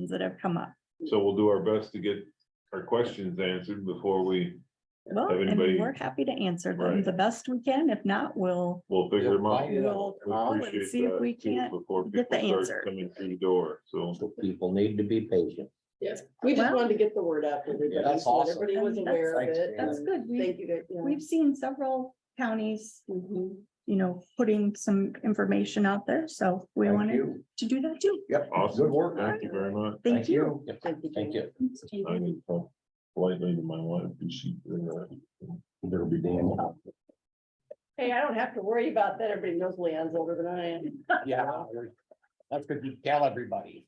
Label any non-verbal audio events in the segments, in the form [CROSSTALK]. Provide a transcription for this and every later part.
questions that have come up. So we'll do our best to get our questions answered before we, Well, Have and anybody- we're happy to answer them Right. the best we can. If not, we'll we'll figure them out. Yeah. we'll We call and appreciate see if that, we too, can't before get the people start answer. Coming through the door, so. People need to be patient. Yes, we just Well- wanted to get the word out. to everybody, Yeah, that's so that awesome. Everybody was I mean, that's- aware of it. Thanks, That's and good. We, Thank you, guys, yeah. we've mm-hmm. seen several counties, Mhm. you know, putting some information out there, so we Thank wanted you. to do that too. Yep. Awesome. Good work. Thank you very much. Thank you. Yep, Thank you. Thank Jane. you. I need to talk politely to my wife, and she, uh, There'll be Dan. Hey, I don't have to worry about that. Everybody knows Leon's older than I am. [LAUGHS] Yeah. That's good. You tell everybody.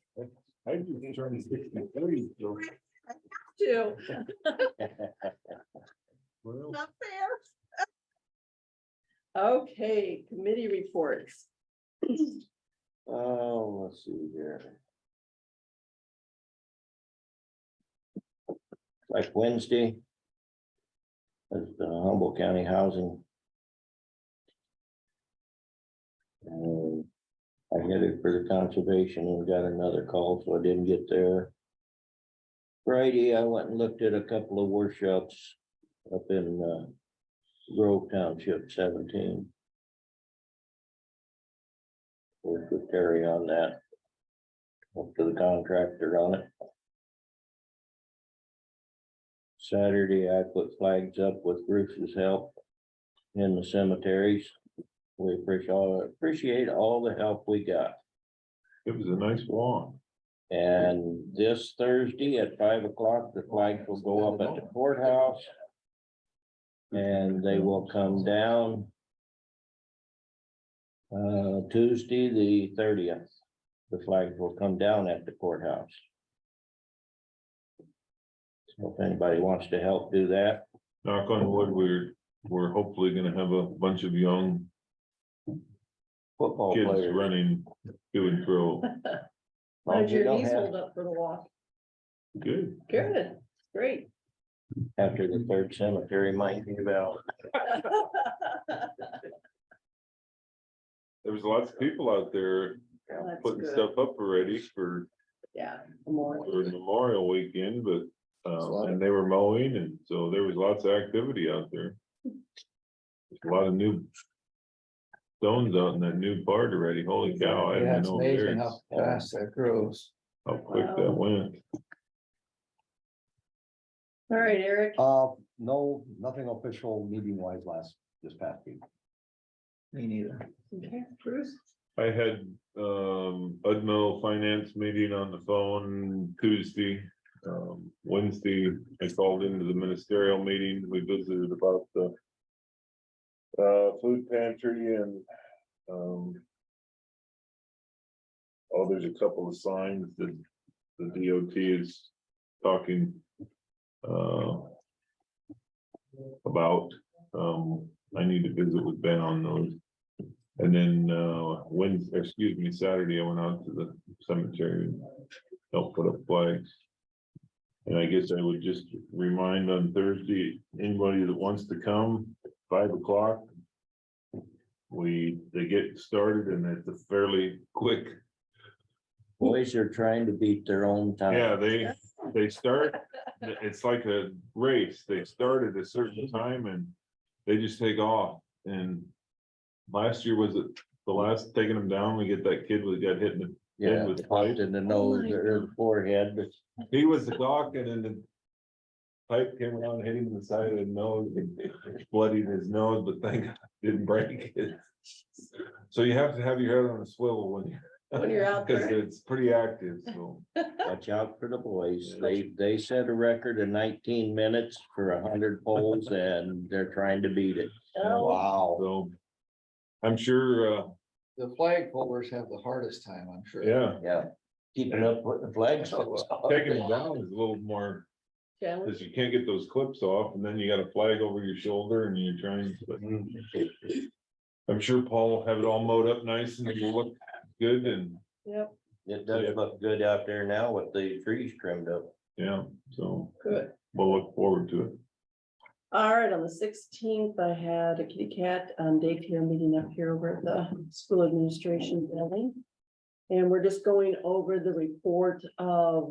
I just turned [LAUGHS] sixty-three, so Too. well, Not fair. Okay, committee reports. Oh, let's see here. Like Wednesday. Is the Humboldt County Housing. And I headed for the conservation and got another call, so I didn't get there. Friday, I went and looked at a couple of workshops up in uh, Grove Township seventeen. Worked with Terry on that. Up to the contractor on it. Saturday, I put flags up with Bruce's help in the cemeteries. We appreciate, all appreciate all the help we got. It was a nice walk. And this Thursday at five o'clock, the flags will go up at the courthouse. And they will come down. Uh, Tuesday, the thirtieth, the flags will come down at the courthouse. So if anybody wants to help do that, Knock on wood, we're, we're hopefully gonna have a bunch of young football kids players. running to and fro. Well, How'd you your don't knees have- hold up for the walk? Good. Good, great. [LAUGHS] After the third cemetery might be about, There was lots of people out there That's putting good. stuff up already for, Yeah. more. for Memorial Weekend, but. Um, and they were mowing and so there was lots of activity out there. There's A lot of new. Stones out in that new part already. Holy cow. I yeah, didn't it's know there. amazing how fast that grows. How quick that went. All right, Eric, Uh, no, nothing official meeting wise last, this past week. Me neither. Okay, Bruce, I had um Udmo Finance meeting on the phone Tuesday. Um, Wednesday, I called into the ministerial meeting. We visited about the. Uh, food pantry and um. Oh, there's a couple of signs that the DOT is talking. Uh. About, um, I need to visit with Ben on those. And then, uh, Wednesday, excuse me, Saturday, I went out to the cemetery and helped put up flags. And I guess I would just remind on Thursday, anybody that wants to come, five o'clock. We, they get started and it's a fairly quick, boys are trying to beat their own time. yeah, they, they start, it's like a race. They start at a certain time and they just take off and last year was it the last taking them down, we get that kid that got hit in the Yeah, with popped in the nose or the forehead, but He was the doc and then the. Pipe came around, hit him in the side of the nose, bloodied his nose, but thank God it didn't break it. So you have to have your head on a swivel when you're. When you're out Cause there. it's pretty active, so. Watch out for the boys. They, they set a record of nineteen minutes for hundred polls and they're trying to beat it. oh, Wow. so I'm sure, uh, The flag pullers have the hardest time, I'm sure. yeah, Yeah. Keeping up with the flags. taking it down is a little more, challenge. cause you can't get those clips off and then you got a flag over your shoulder and you're trying, but. I'm sure Paul will have it all mowed up nice and it'll look good and, Yep, It does look good out there now with the trees trimmed up. yeah, so good. we'll look forward to it. All right, on the sixteenth, I had a kitty cat um daycare meeting up here over at the school administration building. And we're just going over the report of